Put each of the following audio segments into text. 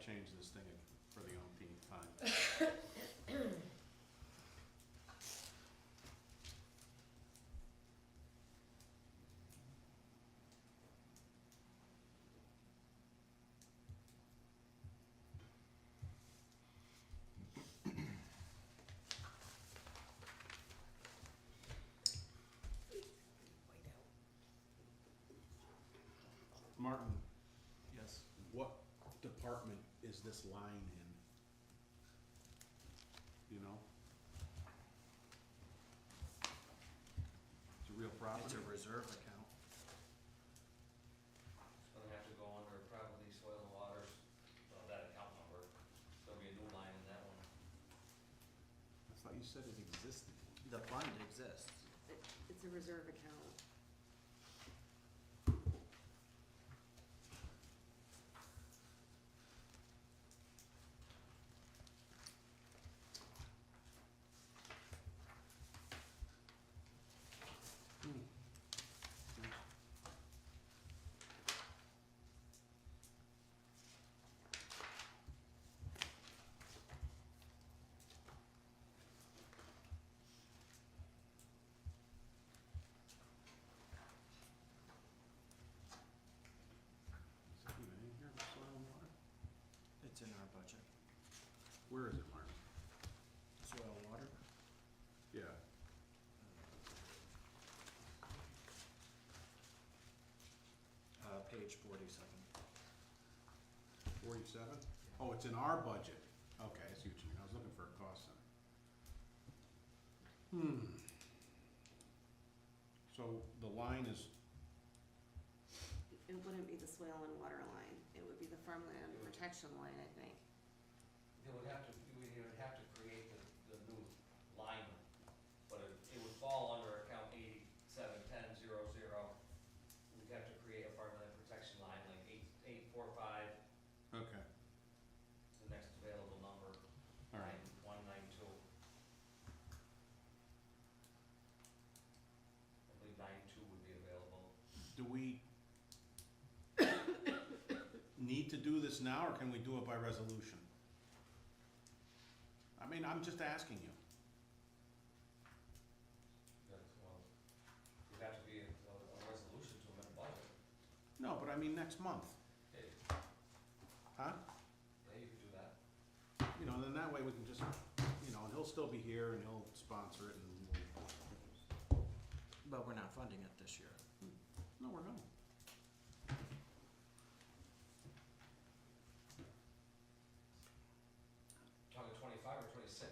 change this thing for the umpteenth time. Martin, Yes. what department is this line in? You know? It's a real It's property. a reserve account. So they have to go under probably soil and waters, uh, that account number, there'll be a new line in that one. I thought you said it existed. The fund exists. It- It's a reserve account. Is it even in here, soil and water? It's in our budget. Where is it, Martin? Soil and water. Yeah, Uh, page forty-seven. forty-seven? Oh, it's in our budget. Okay, I see what you mean. I was looking for a cost center. Hmm. So the line is, It wouldn't be the swale and water line. It would be the farmland protection line, I think. They would have to, you would have to create the, the new line, but it, it would fall under account eighty-seven ten zero zero. We'd have to create a farmland protection line, like eight, eight four five, okay, the next available number, all right. nine, one nine two. I believe nine two would be available. Do we need to do this now, or can we do it by resolution? I mean, I'm just asking you. That's, well, it'd have to be a, a resolution to amend the budget. No, but I mean next month, Hey, huh? yeah, you could do that. You know, then that way we can just, you know, and he'll still be here and he'll sponsor it and we'll, But we're not funding it this year. no, we're not. Talking twenty-five or twenty-six?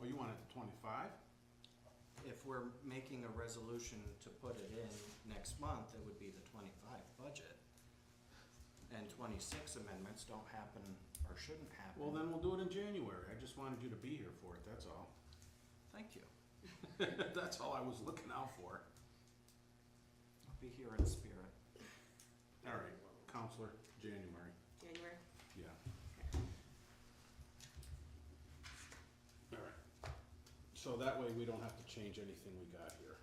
Oh, you want it to twenty-five? If we're making a resolution to put it in next month, it would be the twenty-five budget. And twenty-six amendments don't happen or shouldn't happen. Well, then we'll do it in January. I just wanted you to be here for it, that's all. Thank you. That's all I was looking out for. I'll be here in spirit. All right, Counselor, January, January? yeah. Okay. All right. So that way we don't have to change anything we got here.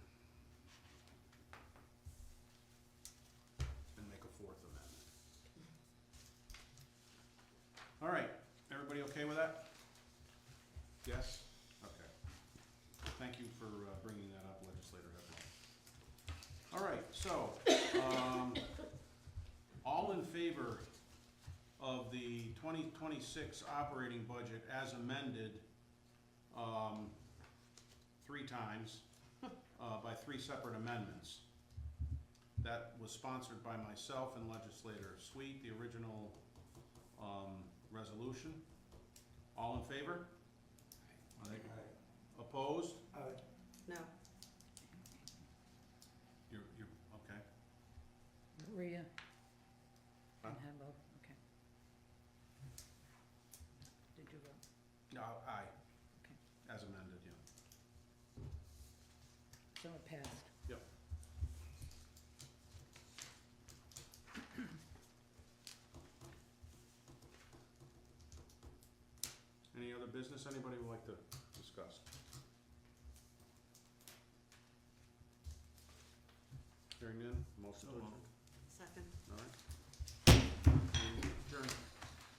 And make a fourth amendment. All right, everybody okay with that? Yes? Okay. Thank you for uh, bringing that up, legislator Hepburn. All right, so, um, all in favor of the twenty twenty-six operating budget as amended um, three times uh, by three separate amendments. That was sponsored by myself and legislator Sweet, the original um, resolution. All in favor? Aye. Opposed? No, You're, you're, okay. Maria and Huh? Hembo, okay. Did you vote? No, aye, Okay, as amended, yeah. so it passed. Yep. Any other business anybody would like to discuss? Hearing none, motion to So adjourn. moved. second. All right. Adjourn.